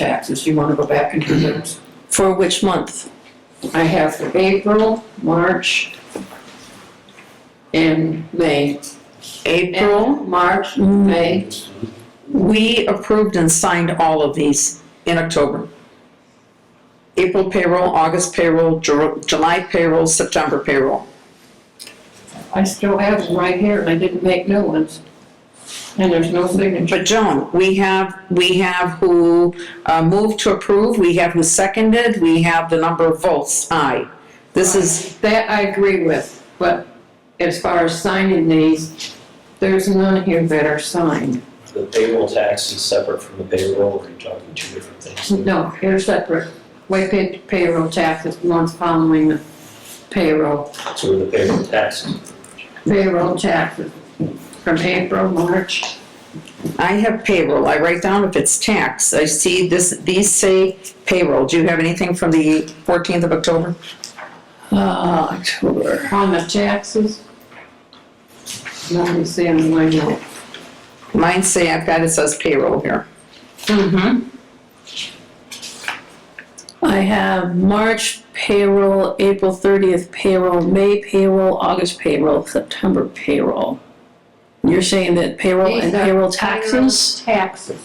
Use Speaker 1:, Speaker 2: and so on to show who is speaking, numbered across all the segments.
Speaker 1: taxes, you wanna go back and do those?
Speaker 2: For which month?
Speaker 1: I have for April, March, and May. April, March, May,
Speaker 2: We approved and signed all of these in October. April payroll, August payroll, Ju- July payroll, September payroll.
Speaker 1: I still have them right here, and I didn't make new ones. And there's no signature.
Speaker 2: But Joan, we have, we have who uh, moved to approve, we have who seconded, we have the number of votes, aye. This is,
Speaker 1: That I agree with, but as far as signing these, there's none here that are signed.
Speaker 3: The payroll tax is separate from the payroll, or are you talking two different things?
Speaker 1: No, they're separate. We paid payroll taxes, the ones following the payroll.
Speaker 3: So the payroll taxes,
Speaker 1: payroll taxes from April, March.
Speaker 2: I have payroll, I write down if it's tax, I see this, these say payroll. Do you have anything from the 14th of October?
Speaker 1: Uh, October. On the taxes. Let me see, I'm going to.
Speaker 2: Mine say, I've got, it says payroll here.
Speaker 1: Mm-hmm.
Speaker 4: I have March payroll, April thirtieth payroll, May payroll, August payroll, September payroll. You're saying that payroll and payroll taxes,
Speaker 1: Oh, Taxes.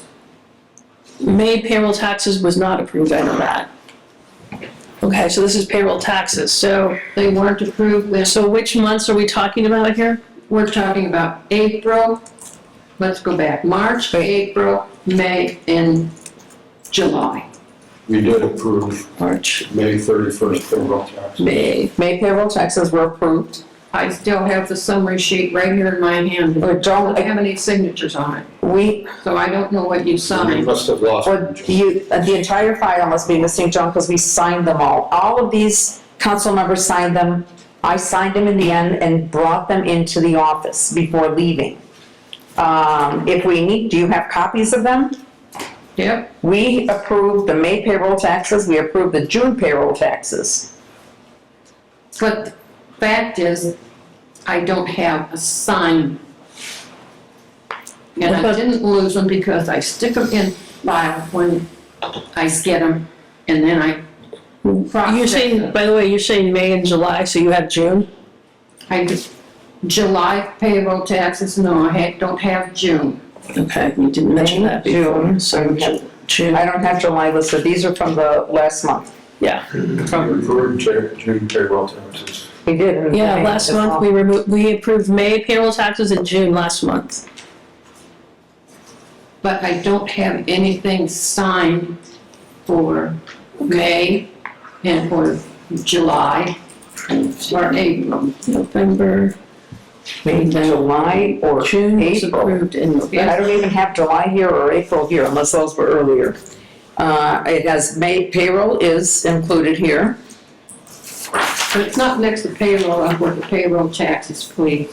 Speaker 4: May payroll taxes was not approved, I know that. Okay, so this is payroll taxes, so,
Speaker 1: They weren't approved this,
Speaker 4: so which months are we talking about here?
Speaker 1: we're talking about April, let's go back, March, April, May, and July.
Speaker 5: We did approve
Speaker 4: March,
Speaker 5: May thirty-first payroll tax.
Speaker 4: May,
Speaker 2: May payroll taxes were approved.
Speaker 1: I still have the summary sheet right here in my hand.
Speaker 2: Or
Speaker 1: I
Speaker 2: don't,
Speaker 1: don't have any signatures on it,
Speaker 2: we,
Speaker 1: so I don't know what you
Speaker 5: We
Speaker 1: signed.
Speaker 5: must have lost.
Speaker 2: or you, uh, the entire file must be missing, John, because we signed them all. All of these council members signed them. I signed them in the end and brought them into the office before leaving. Um, if we need, do you have copies of them?
Speaker 1: Yep,
Speaker 2: We approved the May payroll taxes, we approved the June payroll taxes.
Speaker 1: but the fact is, I don't have a sign. And I didn't lose them because I stick them in file when I get them, and then I.
Speaker 4: you're saying, by the way, you're saying May and July, so you have June?
Speaker 1: I just, July payroll taxes, no, I had, don't have June.
Speaker 4: Okay, you didn't mention that
Speaker 2: May,
Speaker 4: before,
Speaker 2: June,
Speaker 4: so Ju- June,
Speaker 2: I don't have July listed, these are from the last month.
Speaker 4: yeah.
Speaker 5: Approved Ju- June payroll taxes.
Speaker 2: We did. in
Speaker 4: Yeah,
Speaker 2: May,
Speaker 4: last
Speaker 2: that's all.
Speaker 4: month, we removed, we approved May payroll taxes in June last month.
Speaker 1: But I don't have anything signed for May and for July or April.
Speaker 4: November,
Speaker 2: Maybe July or
Speaker 4: June was
Speaker 2: April.
Speaker 4: approved in November.
Speaker 2: I don't even have July here or April here unless those were earlier. Uh, it has May payroll is included here.
Speaker 1: But it's not next to payroll, I want the payroll taxes, please.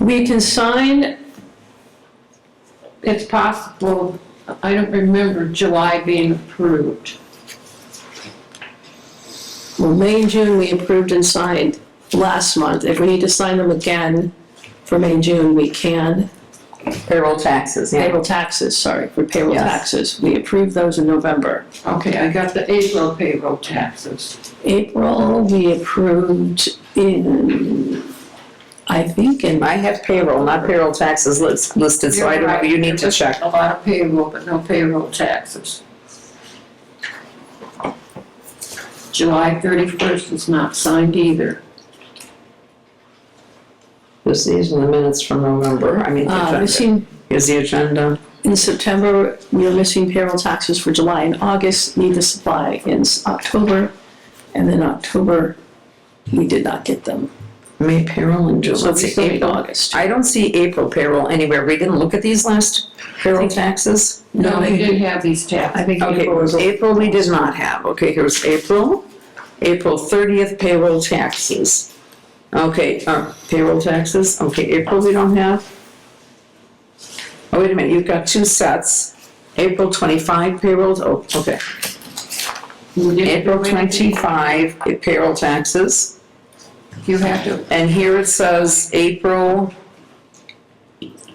Speaker 4: We can sign,
Speaker 1: It's possible, I don't remember July being approved.
Speaker 4: well, May and June, we approved and signed last month. If we need to sign them again for May and June, we can.
Speaker 2: Payroll taxes, yeah.
Speaker 4: Payroll taxes, sorry, for payroll
Speaker 2: Yes.
Speaker 4: taxes, we approved those in November.
Speaker 1: Okay, I got the April payroll taxes.
Speaker 4: April, we approved in, I think in,
Speaker 2: I have payroll, not payroll taxes lis- listed, so I don't know, you need to check.
Speaker 1: A lot of payroll, but no payroll taxes. July thirty-first is not signed either.
Speaker 2: This these are the minutes from November, I mean, the
Speaker 4: uh,
Speaker 2: agenda.
Speaker 4: missing
Speaker 2: Here's the agenda.
Speaker 4: In September, we are missing payroll taxes for July and August, need to supply in s- October, and then October, we did not get them.
Speaker 2: May payroll and July.
Speaker 4: So
Speaker 2: Let's
Speaker 4: we
Speaker 2: see,
Speaker 4: still need
Speaker 2: April.
Speaker 4: August.
Speaker 2: I don't see April payroll anywhere. We didn't look at these last payroll taxes.
Speaker 1: No, they didn't have these taxes.
Speaker 2: think April was. April we did not have, okay, here's April, April thirtieth payroll taxes. Okay, uh, payroll taxes, okay, April we don't have. Oh, wait a minute, you've got two sets, April twenty-five payrolls, oh, okay,
Speaker 1: You didn't
Speaker 2: April
Speaker 1: do anything.
Speaker 2: twenty-five eh, payroll taxes.
Speaker 1: You have to,
Speaker 2: And here it says April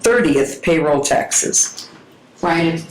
Speaker 2: thirtieth payroll taxes.
Speaker 1: right, it's